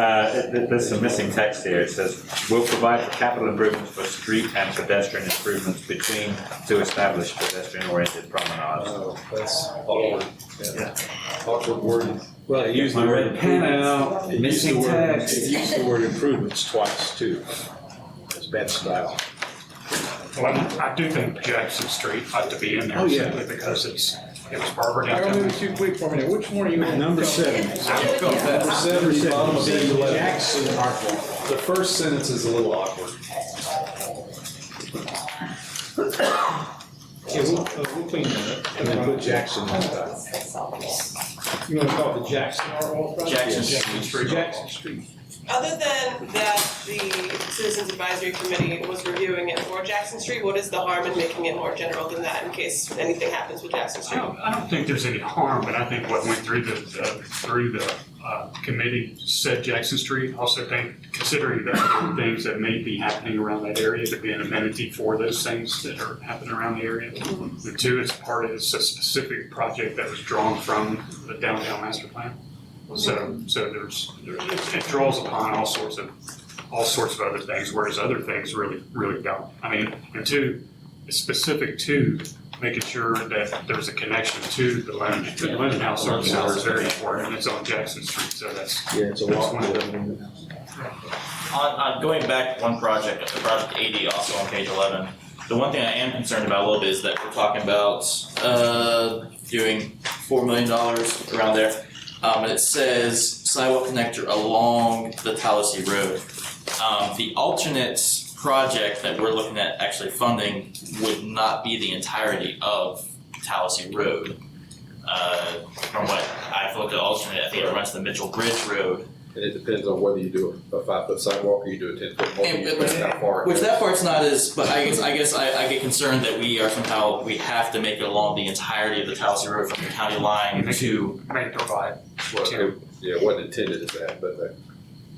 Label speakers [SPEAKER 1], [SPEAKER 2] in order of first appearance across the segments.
[SPEAKER 1] Uh, th- there's some missing text here. It says, "Will provide for capital improvements for street and pedestrian improvements between to establish pedestrian-oriented promenades."
[SPEAKER 2] Oh, that's awkward.
[SPEAKER 1] Yeah.
[SPEAKER 2] Awkward wording.
[SPEAKER 3] Well, it used the word improvements. It used the
[SPEAKER 1] Missing
[SPEAKER 3] word-
[SPEAKER 1] text.
[SPEAKER 3] It used the word improvements twice too. It's bad style.
[SPEAKER 4] Well, I do think Jackson Street ought to be in
[SPEAKER 3] Oh,
[SPEAKER 4] there
[SPEAKER 3] yeah.
[SPEAKER 4] simply because it's, it was Barbara
[SPEAKER 5] I
[SPEAKER 4] down
[SPEAKER 5] remember
[SPEAKER 4] there.
[SPEAKER 5] it's too quick for me. Which one are you on?
[SPEAKER 3] Number seven.
[SPEAKER 2] Number seven, bottom of page eleven.
[SPEAKER 3] Jackson,
[SPEAKER 2] The first sentence is a little awkward.
[SPEAKER 5] Okay, we'll, uh, we'll clean that up.
[SPEAKER 3] and then put Jackson on top.
[SPEAKER 5] You wanna call it the Jackson Art Walk? project?
[SPEAKER 4] Jackson Street.
[SPEAKER 5] Jackson Street.
[SPEAKER 6] Other than that, the Citizens Advisory Committee was reviewing it for Jackson Street, what is the harm in making it more general than that in case anything happens with Jackson
[SPEAKER 4] I
[SPEAKER 6] Street?
[SPEAKER 4] don't, I don't think there's any harm, but I think what went through the, the- through the uh, committee said Jackson Street. Also think, considering the other things that may be happening around that area, to be an amenity for those things that are happening around the area. The two, it's part of, it's a specific project that was drawn from the downtown master plan. So, so there's, there- it it draws upon all sorts of, all sorts of other things, whereas other things really, really don't. I mean, and two, it's specific to making sure that there's a connection to the Lennon, the Lennon House Service House is very important, and it's on Jackson Street, so that's,
[SPEAKER 3] Yeah, it's a
[SPEAKER 4] That's
[SPEAKER 3] walk.
[SPEAKER 4] one of
[SPEAKER 7] On, on going back one project, the project eighty, also on page eleven, the one thing I am concerned about a little bit is that we're talking about, uh, doing four million dollars around there. Um, and it says sidewalk connector along the Tallahassee Road. Um, the alternate project that we're looking at actually funding would not be the entirety of Tallahassee Road. Uh, from what I've looked at alternate, I think it runs the Mitchell Bridge Road,
[SPEAKER 8] And it depends on whether you do a five foot sidewalk or you do a ten foot
[SPEAKER 7] And-
[SPEAKER 8] multi, depends how far. it
[SPEAKER 7] Which
[SPEAKER 8] goes.
[SPEAKER 7] that part's not as, but I guess, I guess I, I get concerned that we are somehow, we have to make it along the entirety of the Tallahassee Road from the county line to.
[SPEAKER 4] may provide.
[SPEAKER 8] Well, it- Yeah, it wasn't intended as that, but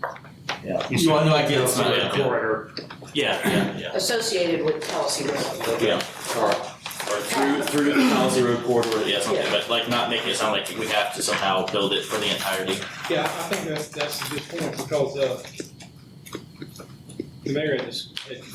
[SPEAKER 8] uh, that-
[SPEAKER 7] You want no idea, it's
[SPEAKER 4] So
[SPEAKER 7] not,
[SPEAKER 4] the
[SPEAKER 7] yeah,
[SPEAKER 4] corridor,
[SPEAKER 7] yeah, yeah,
[SPEAKER 9] associated with Kelsey Road.
[SPEAKER 7] yeah. Or through, through the Tallahassee Road corridor, yeah, something, but like not making it sound like we have to somehow build it for the entirety.
[SPEAKER 5] Yeah, I think that's, that's a good point because, uh, the mayor, had dis-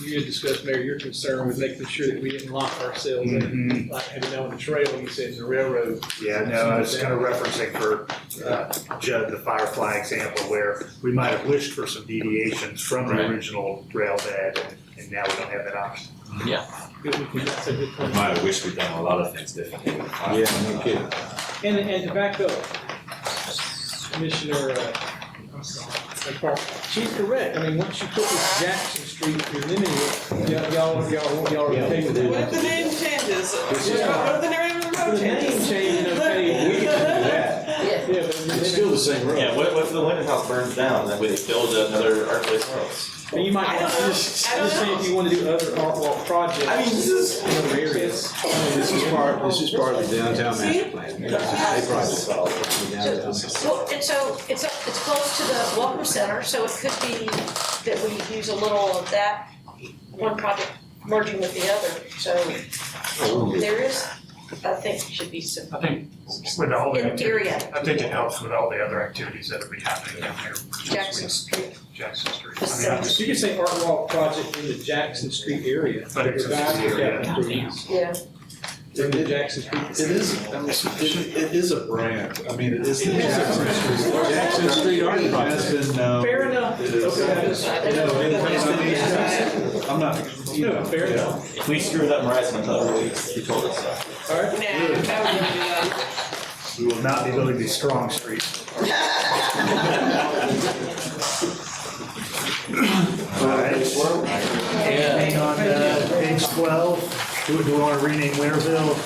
[SPEAKER 5] you had discussed, Mayor, your concern with making sure that we didn't lock ourselves in. Like, having on the trail, you said, the railroad.
[SPEAKER 10] Mm-hmm. Yeah, no, I was kind of referencing for uh, Judd, the Firefly example, where we might have wished for some deviations from the
[SPEAKER 7] Right.
[SPEAKER 10] original rail bed, and- and now we don't have that option.
[SPEAKER 5] Good, we can- That's a good
[SPEAKER 1] We
[SPEAKER 5] point.
[SPEAKER 1] might have wished we'd done a lot of things differently. with the file.
[SPEAKER 3] Yeah, no kidding.
[SPEAKER 5] And, and to back up, Commissioner, uh, I'm sorry, McCarthy, she's correct. I mean, once you put this Jackson Street, you're limiting it. Y'all, y'all, y'all, y'all are okay with
[SPEAKER 6] What if
[SPEAKER 5] it.
[SPEAKER 6] the name changes? What if the name of the road
[SPEAKER 5] The name
[SPEAKER 6] changes?
[SPEAKER 5] change, okay, we can do that.
[SPEAKER 9] Yeah.
[SPEAKER 5] Yeah, but you're
[SPEAKER 3] It's
[SPEAKER 5] limiting-
[SPEAKER 3] still the same road.
[SPEAKER 7] Yeah, what, what if the Linden House burns down, then we build another Archway Terrace?
[SPEAKER 5] But you might
[SPEAKER 6] I
[SPEAKER 5] want
[SPEAKER 6] don't
[SPEAKER 5] to
[SPEAKER 6] know.
[SPEAKER 5] just,
[SPEAKER 6] I don't
[SPEAKER 5] just say
[SPEAKER 6] know.
[SPEAKER 5] if you want to do other art walk projects.
[SPEAKER 7] I mean, this is-
[SPEAKER 5] in other areas.
[SPEAKER 3] This is part, this is part of the downtown master plan. They probably- downtown.
[SPEAKER 9] Well, and so it's, up- it's close to the Welcome Center, so it could be that we use a little of that, one project merging with the other. So there is, I think, should be some,
[SPEAKER 4] I think with all the.
[SPEAKER 9] in theory,
[SPEAKER 4] I think it helps with all the other activities that are be happening down here.
[SPEAKER 9] Jackson Street.
[SPEAKER 4] Jackson Street. I mean, I just-
[SPEAKER 5] You can say art walk project in the Jackson Street area.
[SPEAKER 4] But it's a-
[SPEAKER 5] Provide for that
[SPEAKER 4] yeah.
[SPEAKER 5] improvements.
[SPEAKER 9] Yeah.
[SPEAKER 5] In the Jackson Street.
[SPEAKER 3] It is, I mean, it it is a brand. I mean, it is the Jackson Street. Jackson Street Art Project has been, um.
[SPEAKER 5] Fair enough.
[SPEAKER 3] It is.
[SPEAKER 5] Okay, that is-
[SPEAKER 3] No, it- it's been- I'm not, you
[SPEAKER 5] No,
[SPEAKER 3] know.
[SPEAKER 5] fair enough.
[SPEAKER 7] If we screw it up, Mariah's gonna tell us, you told us. so.
[SPEAKER 5] All
[SPEAKER 6] Nah,
[SPEAKER 5] right.
[SPEAKER 6] I would um, never do that.
[SPEAKER 10] We will not be building these strong streets. All right,
[SPEAKER 7] Yeah.
[SPEAKER 10] anything on uh, page twelve, do do we want to rename Winterville?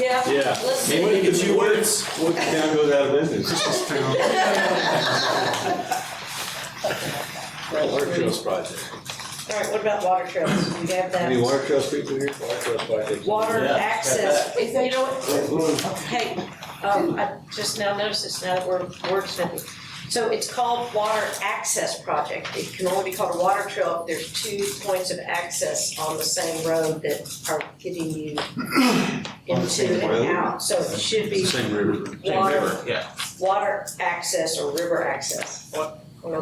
[SPEAKER 9] Yeah.
[SPEAKER 3] Yeah.
[SPEAKER 9] Let's
[SPEAKER 7] Maybe we
[SPEAKER 9] see.
[SPEAKER 7] could two words.
[SPEAKER 3] What town goes out of business? Art Trails Project.
[SPEAKER 9] All right, what about water trails? Do we have
[SPEAKER 3] Any
[SPEAKER 9] that?
[SPEAKER 3] water trails people here? Water trails project.
[SPEAKER 9] Water
[SPEAKER 7] Yeah.
[SPEAKER 9] access, you know what? Hey, um, I just now noticed this, now that we're wordsmithing. So it's called water access project. It can only be called a water trail if there's two points of access on the same road that are getting you into and out. So it should be
[SPEAKER 3] Same river.
[SPEAKER 9] water,
[SPEAKER 7] yeah.
[SPEAKER 9] water access or river access. What?